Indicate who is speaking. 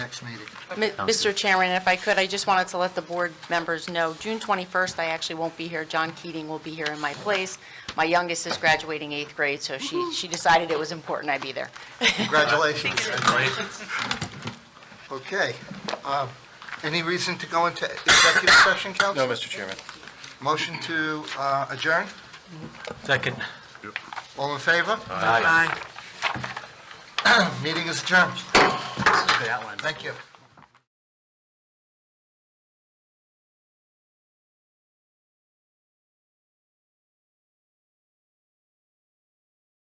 Speaker 1: next meeting.
Speaker 2: Mi- Mr. Chairman, if I could, I just wanted to let the board members know, June 21st, I actually won't be here. John Keating will be here in my place. My youngest is graduating eighth grade, so she, she decided it was important I be there.
Speaker 1: Congratulations. Okay. um, Any reason to go into executive session,
Speaker 3: No,
Speaker 1: Council?
Speaker 3: Mr. Chairman.
Speaker 1: Motion to uh, adjourn?
Speaker 3: Second.
Speaker 1: All in favor?
Speaker 3: Aye.
Speaker 1: Meeting is adjourned. Thank you.